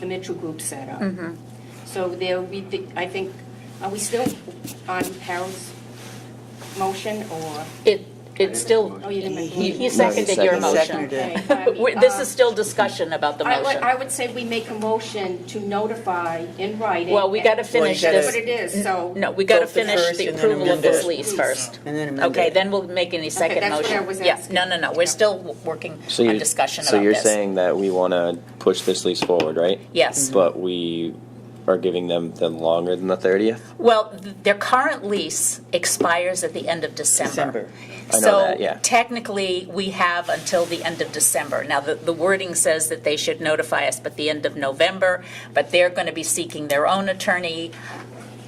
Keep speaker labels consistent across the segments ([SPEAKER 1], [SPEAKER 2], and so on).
[SPEAKER 1] the Mitchell Group set up. So there we, thi- I think, are we still on Harold's motion or?
[SPEAKER 2] It, it's still,
[SPEAKER 1] Oh, you didn't make the
[SPEAKER 2] he he
[SPEAKER 1] motion.
[SPEAKER 2] seconded your
[SPEAKER 3] He
[SPEAKER 2] motion.
[SPEAKER 3] seconded it.
[SPEAKER 1] Okay, I mean,
[SPEAKER 2] We- This
[SPEAKER 1] uh,
[SPEAKER 2] is still discussion about the
[SPEAKER 1] I would- I
[SPEAKER 2] motion.
[SPEAKER 1] would say we make a motion to notify in writing.
[SPEAKER 2] Well, we got to
[SPEAKER 3] Well, you
[SPEAKER 2] finish
[SPEAKER 3] gotta-
[SPEAKER 1] That's
[SPEAKER 2] this.
[SPEAKER 1] what it is, so.
[SPEAKER 2] No, we got to
[SPEAKER 3] Vote the
[SPEAKER 2] finish
[SPEAKER 3] first
[SPEAKER 2] the
[SPEAKER 3] and then
[SPEAKER 2] approval of
[SPEAKER 3] amend it.
[SPEAKER 2] this lease first.
[SPEAKER 3] And then amend
[SPEAKER 2] Okay,
[SPEAKER 3] it.
[SPEAKER 2] then we'll make any second
[SPEAKER 1] that's what
[SPEAKER 2] motion.
[SPEAKER 1] I was asking.
[SPEAKER 2] Yeah, no, no, no, we're still w- working
[SPEAKER 4] So
[SPEAKER 2] on
[SPEAKER 4] you're-
[SPEAKER 2] discussion about this.
[SPEAKER 4] So you're saying that we want to push this lease forward, right?
[SPEAKER 2] Yes.
[SPEAKER 5] Mm-hmm.
[SPEAKER 4] But we are giving them the longer than the 30th?
[SPEAKER 2] Well, th- their current lease expires at the end of December.
[SPEAKER 3] December.
[SPEAKER 4] I know that, yeah.
[SPEAKER 2] So technically, we have until the end of December. Now, the, the wording says that they should notify us but the end of November, but they're going to be seeking their own attorney.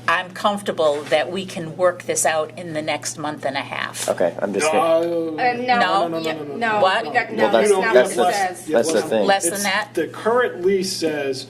[SPEAKER 2] I'm comfortable that we can work this out in the next month and a half.
[SPEAKER 4] Okay, I'm just, gonna-
[SPEAKER 1] Uh, No,
[SPEAKER 5] No.
[SPEAKER 2] No,
[SPEAKER 5] no, no,
[SPEAKER 1] yeah,
[SPEAKER 5] no, no,
[SPEAKER 1] no,
[SPEAKER 5] no.
[SPEAKER 2] What?
[SPEAKER 1] we got-
[SPEAKER 4] Well,
[SPEAKER 1] no,
[SPEAKER 4] that's-
[SPEAKER 1] that's not what
[SPEAKER 4] that's
[SPEAKER 1] it
[SPEAKER 4] the-
[SPEAKER 1] says.
[SPEAKER 4] that's the thing.
[SPEAKER 2] Less than
[SPEAKER 5] It's-
[SPEAKER 2] that?
[SPEAKER 5] The current lease says,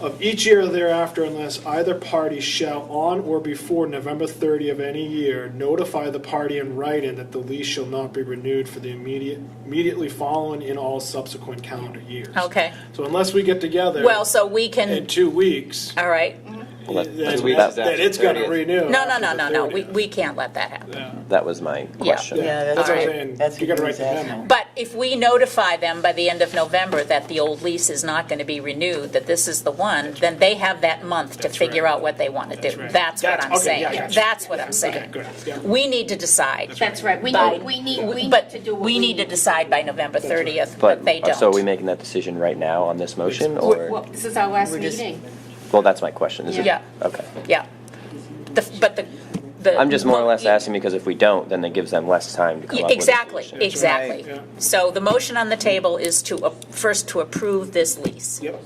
[SPEAKER 5] of each year thereafter unless either party shall on or before November 30 of any year notify the party in writing that the lease shall not be renewed for the immediate, immediately following in all subsequent calendar years.
[SPEAKER 2] Okay.
[SPEAKER 5] So unless we get together
[SPEAKER 2] Well, so we
[SPEAKER 5] in
[SPEAKER 2] can,
[SPEAKER 5] two weeks,
[SPEAKER 2] all right.
[SPEAKER 5] Mm-hmm.
[SPEAKER 4] Well,
[SPEAKER 5] then
[SPEAKER 4] that's-
[SPEAKER 5] that-
[SPEAKER 4] that's-
[SPEAKER 5] then it's going to renew.
[SPEAKER 2] No, no,
[SPEAKER 5] after
[SPEAKER 2] no,
[SPEAKER 5] the
[SPEAKER 2] no, no, we,
[SPEAKER 5] 30th.
[SPEAKER 2] we can't let that happen.
[SPEAKER 5] Yeah.
[SPEAKER 4] that was my question.
[SPEAKER 3] Yeah, that's
[SPEAKER 5] That's what
[SPEAKER 2] right.
[SPEAKER 5] I'm saying.
[SPEAKER 3] That's
[SPEAKER 5] You
[SPEAKER 3] what
[SPEAKER 5] got to
[SPEAKER 3] he
[SPEAKER 5] write
[SPEAKER 3] was
[SPEAKER 5] the
[SPEAKER 3] asking.
[SPEAKER 5] memo.
[SPEAKER 2] But if we notify them by the end of November that the old lease is not going to be renewed, that this is the one, then they have that month to
[SPEAKER 5] That's
[SPEAKER 2] figure
[SPEAKER 5] right.
[SPEAKER 2] out what they want to
[SPEAKER 5] That's
[SPEAKER 2] do.
[SPEAKER 5] right.
[SPEAKER 2] That's what
[SPEAKER 5] That's-
[SPEAKER 2] I'm
[SPEAKER 5] okay,
[SPEAKER 2] saying.
[SPEAKER 5] yeah, gotcha.
[SPEAKER 2] That's what I'm
[SPEAKER 5] Okay,
[SPEAKER 2] saying.
[SPEAKER 5] good. Yeah.
[SPEAKER 2] We need to decide.
[SPEAKER 1] That's right, we
[SPEAKER 2] by-
[SPEAKER 1] need, we need, we need
[SPEAKER 2] but
[SPEAKER 1] to do what
[SPEAKER 2] we need to decide by November 30th, but
[SPEAKER 4] But, uh,
[SPEAKER 2] they don't.
[SPEAKER 4] so are we making that decision right now on this motion,
[SPEAKER 1] Well,
[SPEAKER 4] or?
[SPEAKER 1] this is our last
[SPEAKER 3] We're just-
[SPEAKER 1] meeting.
[SPEAKER 4] Well, that's my question. Is it-
[SPEAKER 2] Yeah.
[SPEAKER 4] Okay.
[SPEAKER 2] Yeah. The- But the, the.
[SPEAKER 4] I'm just more or less asking because if we don't, then it gives them less time to come up with a
[SPEAKER 2] Exactly,
[SPEAKER 4] solution.
[SPEAKER 2] exactly.
[SPEAKER 5] Right.
[SPEAKER 2] So the motion on the table is to, uh, first to approve this lease.
[SPEAKER 5] Yep.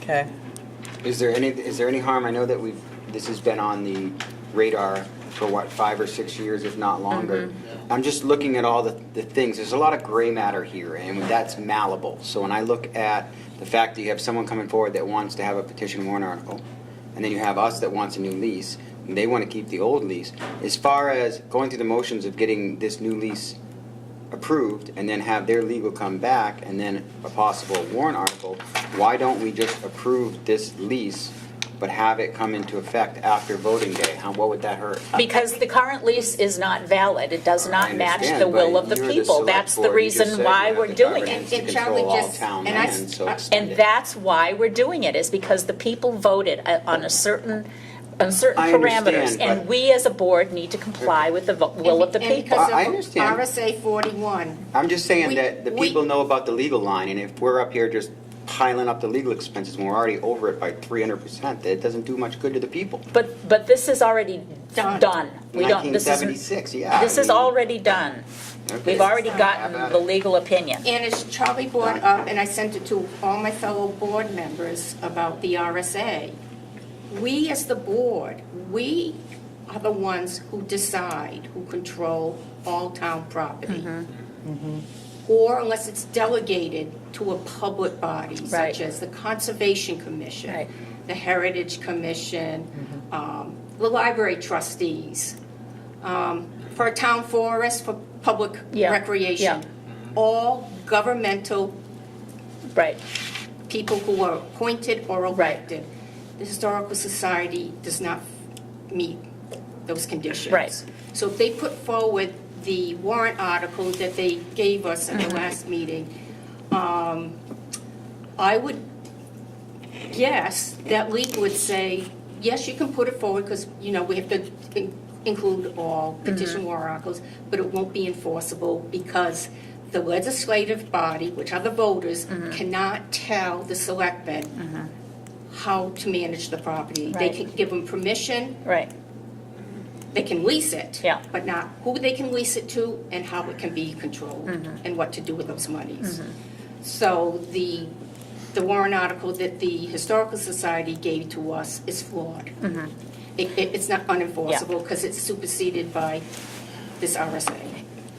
[SPEAKER 3] Okay.
[SPEAKER 6] Is there any, is there any harm, I know that we've, this has been on the radar for what, five or six years, if not longer. I'm just looking at all the, the things, there's a lot of gray matter here, and that's malleable. So when I look at the fact that you have someone coming forward that wants to have a petition warrant article, and then you have us that wants a new lease, and they want to keep the old lease, as far as going through the motions of getting this new lease approved and then have their legal come back and then a possible warrant article, why don't we just approve this lease but have it come into effect after voting day? How, what would that hurt?
[SPEAKER 2] Because the current lease is not valid, it does not
[SPEAKER 6] Uh, I
[SPEAKER 2] match the
[SPEAKER 6] understand,
[SPEAKER 2] will
[SPEAKER 6] but
[SPEAKER 2] of the
[SPEAKER 6] you're the
[SPEAKER 2] people.
[SPEAKER 6] select
[SPEAKER 2] That's the
[SPEAKER 6] board. You just
[SPEAKER 2] reason
[SPEAKER 6] said
[SPEAKER 2] why
[SPEAKER 6] you have
[SPEAKER 2] we're
[SPEAKER 6] the
[SPEAKER 2] doing
[SPEAKER 6] governance
[SPEAKER 2] it.
[SPEAKER 6] to
[SPEAKER 1] And Charlie
[SPEAKER 6] control all
[SPEAKER 1] just-
[SPEAKER 6] town
[SPEAKER 1] and I s-
[SPEAKER 6] land, so
[SPEAKER 1] I-
[SPEAKER 6] extend
[SPEAKER 2] And
[SPEAKER 6] it.
[SPEAKER 2] that's why we're doing it, is because the people voted uh, on a certain, on certain
[SPEAKER 6] I
[SPEAKER 2] parameters.
[SPEAKER 6] understand,
[SPEAKER 2] And
[SPEAKER 6] but-
[SPEAKER 2] we as a board need to comply with the vo- will of the
[SPEAKER 1] And
[SPEAKER 2] people.
[SPEAKER 1] because
[SPEAKER 6] I- I
[SPEAKER 1] of
[SPEAKER 6] understand.
[SPEAKER 1] RSA 41,
[SPEAKER 6] I'm just
[SPEAKER 1] We-
[SPEAKER 6] saying that the
[SPEAKER 1] we-
[SPEAKER 6] people know about the legal line, and if we're up here just piling up the legal expenses when we're already over it by three hundred percent, that doesn't do much good to the people.
[SPEAKER 2] But, but this is already
[SPEAKER 1] Done.
[SPEAKER 2] done. We don't,
[SPEAKER 6] Nineteen
[SPEAKER 2] this is,
[SPEAKER 6] seventy-six, yeah.
[SPEAKER 2] this
[SPEAKER 6] I
[SPEAKER 2] is
[SPEAKER 6] mean,
[SPEAKER 2] already done.
[SPEAKER 6] okay.
[SPEAKER 2] We've already
[SPEAKER 6] How
[SPEAKER 2] gotten
[SPEAKER 6] about
[SPEAKER 2] the
[SPEAKER 6] it?
[SPEAKER 2] legal opinion.
[SPEAKER 1] And as Charlie brought up, and I sent it to all my fellow board members about the RSA, we as the board, we are the ones who decide, who control all town property.
[SPEAKER 2] Mm-hmm.
[SPEAKER 1] Mm-hmm. Or unless it's delegated to a public body, such
[SPEAKER 2] Right.
[SPEAKER 1] as the Conservation Commission,
[SPEAKER 2] Right. Mm-hmm.
[SPEAKER 1] the Heritage Commission, um, the library trustees, um, for a town forest, for public
[SPEAKER 2] Yeah,
[SPEAKER 1] recreation. All governmental
[SPEAKER 2] Right.
[SPEAKER 1] people who are appointed or
[SPEAKER 2] Right.
[SPEAKER 1] elected. The Historical Society does not meet those conditions.
[SPEAKER 2] Right.
[SPEAKER 1] So if they put forward the warrant article that they gave us at the
[SPEAKER 2] Mm-hmm.
[SPEAKER 1] last meeting, um, I would guess that legal would say, yes, you can put it forward because, you know, we have to in- include all petition warrant articles, but it won't be enforceable because the legislative body, which are the voters, cannot tell the selectmen how to manage the property. They
[SPEAKER 2] Right.
[SPEAKER 1] can give them permission,
[SPEAKER 2] Right.
[SPEAKER 1] they can lease it.
[SPEAKER 2] Yeah.
[SPEAKER 1] But not who they can lease it to and how it can be controlled
[SPEAKER 2] Mm-hmm.
[SPEAKER 1] and what to do with those monies. So the, the warrant article that the Historical Society gave to us is flawed.
[SPEAKER 2] Mm-hmm.
[SPEAKER 1] It, it- it's not unenforceable because it's superseded by this RSA.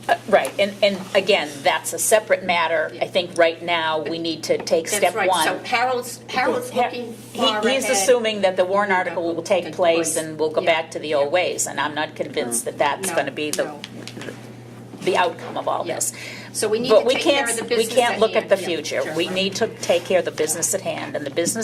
[SPEAKER 2] Uh, Right, and, and again, that's a separate matter. I think right now, we need to take step
[SPEAKER 1] That's
[SPEAKER 2] one.
[SPEAKER 1] right. So Harold's, Harold's looking
[SPEAKER 2] He-
[SPEAKER 1] far ahead.
[SPEAKER 2] He's assuming that the warrant article will take
[SPEAKER 1] Take
[SPEAKER 2] place
[SPEAKER 1] place.
[SPEAKER 2] and we'll go
[SPEAKER 1] Yeah.
[SPEAKER 2] back to the old ways, and I'm not convinced that that's
[SPEAKER 1] No,
[SPEAKER 2] going to be the,
[SPEAKER 1] no.
[SPEAKER 2] the outcome of all
[SPEAKER 1] Yeah.
[SPEAKER 2] this.
[SPEAKER 1] So we need to
[SPEAKER 2] But we
[SPEAKER 1] take care of
[SPEAKER 2] can't,
[SPEAKER 1] the business
[SPEAKER 2] we can't
[SPEAKER 1] at
[SPEAKER 2] look at
[SPEAKER 1] hand.
[SPEAKER 2] the
[SPEAKER 1] Yeah,
[SPEAKER 2] future.
[SPEAKER 1] sure.
[SPEAKER 2] We need to take care of the business at hand, and the business